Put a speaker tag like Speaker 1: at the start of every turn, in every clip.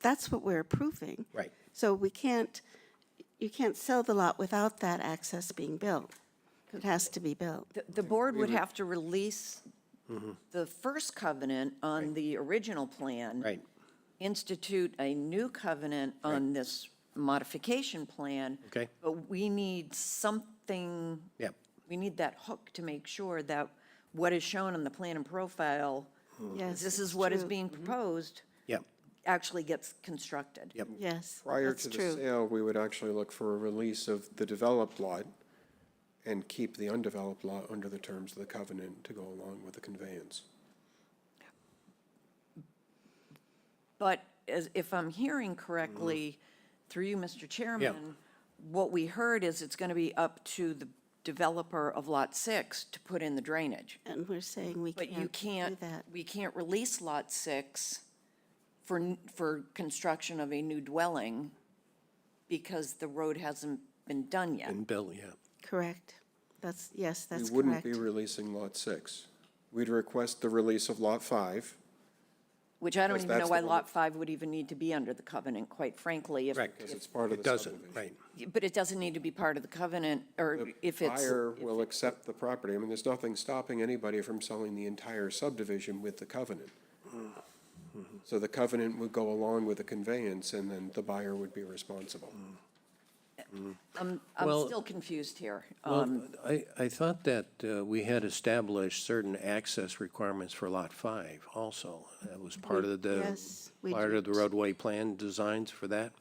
Speaker 1: that's what we're approving.
Speaker 2: Right.
Speaker 1: So we can't, you can't sell the lot without that access being built. It has to be built.
Speaker 3: The- The board would have to release the first covenant on the original plan.
Speaker 2: Right.
Speaker 3: Institute a new covenant on this modification plan.
Speaker 2: Okay.
Speaker 3: But we need something.
Speaker 2: Yep.
Speaker 3: We need that hook to make sure that what is shown on the plan and profile,
Speaker 2: Hmm.
Speaker 1: Yes.
Speaker 3: this
Speaker 1: it's
Speaker 3: is what is
Speaker 1: true. Mm-hmm.
Speaker 3: being proposed,
Speaker 2: Yep,
Speaker 3: actually gets constructed.
Speaker 2: yep,
Speaker 1: Yes.
Speaker 4: Prior
Speaker 1: that's
Speaker 4: to the
Speaker 1: true.
Speaker 4: sale, we would actually look for a release of the developed lot and keep the undeveloped lot under the terms of the covenant to go along with the conveyance.
Speaker 3: But as, if I'm hearing correctly,
Speaker 4: Mm-hmm.
Speaker 3: through you, Mr. Chairman, what we heard is it's going to be up to the developer of Lot 6 to put in the drainage.
Speaker 1: And we're saying we
Speaker 3: But you
Speaker 1: can't do
Speaker 3: can't,
Speaker 1: that.
Speaker 3: we can't release Lot 6 for, n- for construction of a new dwelling because the road hasn't been done yet.
Speaker 2: and Bill, yeah.
Speaker 1: Correct. That's, yes,
Speaker 4: We
Speaker 1: that's
Speaker 4: wouldn't
Speaker 1: correct.
Speaker 4: be releasing Lot 6. We'd request the release of Lot 5.
Speaker 3: Which I don't
Speaker 4: Because
Speaker 3: even know
Speaker 4: that's the
Speaker 3: why
Speaker 4: one
Speaker 3: Lot 5 would even need to be under the covenant, quite frankly. if-
Speaker 2: Correct.
Speaker 4: Because it's part of
Speaker 2: It
Speaker 4: the
Speaker 2: doesn't,
Speaker 4: subdivision.
Speaker 2: right.
Speaker 3: But it doesn't need to be part of the covenant, or if it's.
Speaker 4: Buyer will accept the property. I mean, there's nothing stopping anybody from selling the entire subdivision with the covenant.
Speaker 2: Mm-hmm.
Speaker 4: So the covenant would go along with the conveyance, and then the buyer would be responsible.
Speaker 3: I'm, I'm
Speaker 2: Well-
Speaker 3: still confused here. Um,
Speaker 2: Well, I, I thought that uh, we had established certain access requirements for Lot 5 also. That was part of the,
Speaker 1: yes, we
Speaker 2: part of the
Speaker 1: did.
Speaker 2: roadway plan designs for that.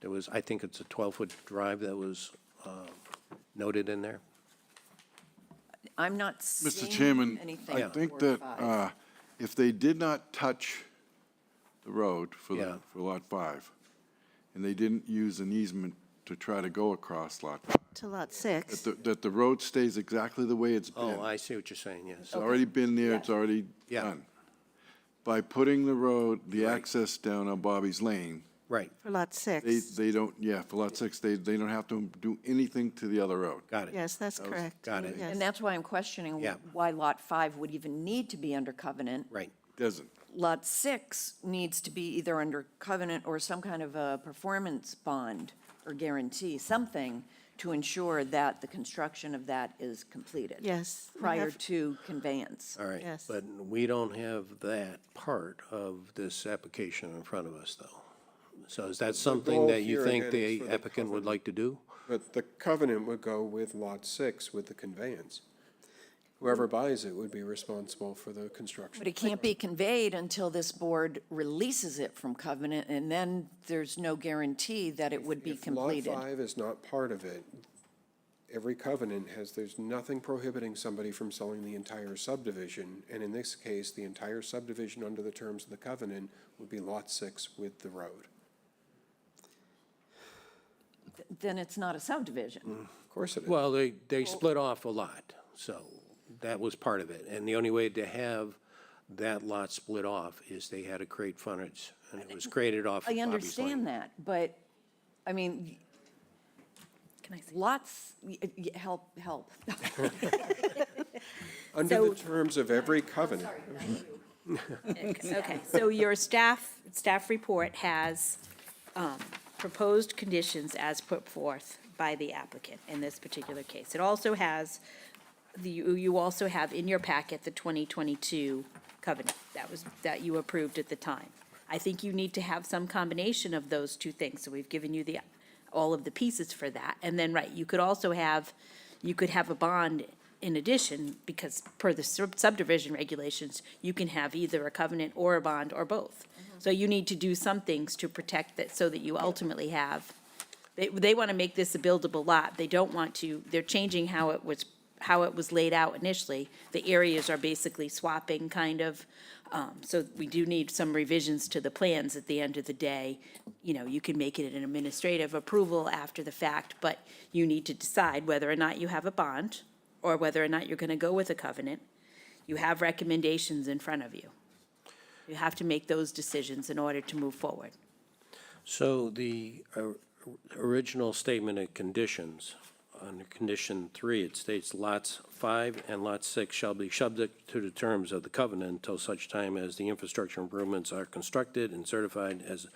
Speaker 2: There was, I think it's a 12-foot drive that was uh, noted in there.
Speaker 3: I'm not
Speaker 5: Mr.
Speaker 3: seeing
Speaker 5: Chairman,
Speaker 3: anything.
Speaker 5: I think
Speaker 3: for
Speaker 5: that
Speaker 3: five.
Speaker 5: uh, if they did not touch the road for,
Speaker 2: Yeah.
Speaker 5: the- for Lot 5, and they didn't use an easement to try to go across Lot 5,
Speaker 1: To lot
Speaker 5: that
Speaker 1: six.
Speaker 5: the, that the road stays exactly the way it's
Speaker 2: Oh,
Speaker 5: been.
Speaker 2: I see what you're saying, yes.
Speaker 1: Oh.
Speaker 5: It's already been there, it's already
Speaker 2: Yeah.
Speaker 5: done. By putting the road, the access down on Bobby's Lane,
Speaker 2: Right,
Speaker 1: For lot
Speaker 5: they,
Speaker 1: six.
Speaker 5: they don't, yeah, for Lot 6, they, they don't have to do anything to the other road.
Speaker 2: got it.
Speaker 1: Yes, that's correct.
Speaker 2: got it.
Speaker 1: Yes.
Speaker 3: And that's why I'm questioning
Speaker 2: Yeah.
Speaker 3: why Lot 5 would even need to be under covenant.
Speaker 2: Right,
Speaker 5: Doesn't.
Speaker 3: Lot 6 needs to be either under covenant or some kind of a performance bond or guarantee, something to ensure that the construction of that is completed.
Speaker 1: Yes, we
Speaker 3: Prior
Speaker 1: have-
Speaker 3: to conveyance.
Speaker 2: all right.
Speaker 1: Yes.
Speaker 2: But we don't have that part of this application in front of us, though. So is that something
Speaker 4: goal
Speaker 2: that you
Speaker 4: here
Speaker 2: think
Speaker 4: again
Speaker 2: the
Speaker 4: is for the
Speaker 2: applicant would like to do?
Speaker 4: But the covenant would go with lot six with the conveyance. Whoever buys it would be responsible for the
Speaker 3: But
Speaker 4: construction.
Speaker 3: it can't be conveyed until this board releases it from covenant, and then there's no guarantee that it would be
Speaker 4: If lot
Speaker 3: completed.
Speaker 4: five is not part of it, every covenant has, there's nothing prohibiting somebody from selling the entire subdivision. And in this case, the entire subdivision under the terms of the covenant would be lot six with the road.
Speaker 3: Then it's not a subdivision.
Speaker 4: Of course it is.
Speaker 2: Well, they, they split off a lot, so that was part of it. And the only way to have that lot split off is they had to create frontage, and it was created off of
Speaker 3: I
Speaker 2: Bobby's Lane.
Speaker 3: understand that, but, I mean, lots, y- y- help, help.
Speaker 4: Under
Speaker 6: so-
Speaker 4: the terms of every covenant.
Speaker 6: Okay, so your staff, staff report has um, proposed conditions as put forth by the applicant in this particular case. It also has, the you you also have in your packet the 2022 covenant that was, that you approved at the time. I think you need to have some combination of those two things, so we've given you the, all of the pieces for that. And then, right, you could also have, you could have a bond in addition, because per the sub- subdivision regulations, you can have either a covenant or a bond or both. So you need to do some things to protect that, so that you ultimately have, they, they want to make this a buildable lot. They don't want to, they're changing how it was, how it was laid out initially. The areas are basically swapping, kind of. Um, So we do need some revisions to the plans at the end of the day. You know, you can make it an administrative approval after the fact, but you need to decide whether or not you have a bond or whether or not you're going to go with a covenant. You have recommendations in front of you. You have to make those decisions in order to move forward.
Speaker 2: So the or- original statement of conditions, under condition three, it states lots five and lot six shall be subject to the terms of the covenant until such time as the infrastructure improvements are constructed and certified as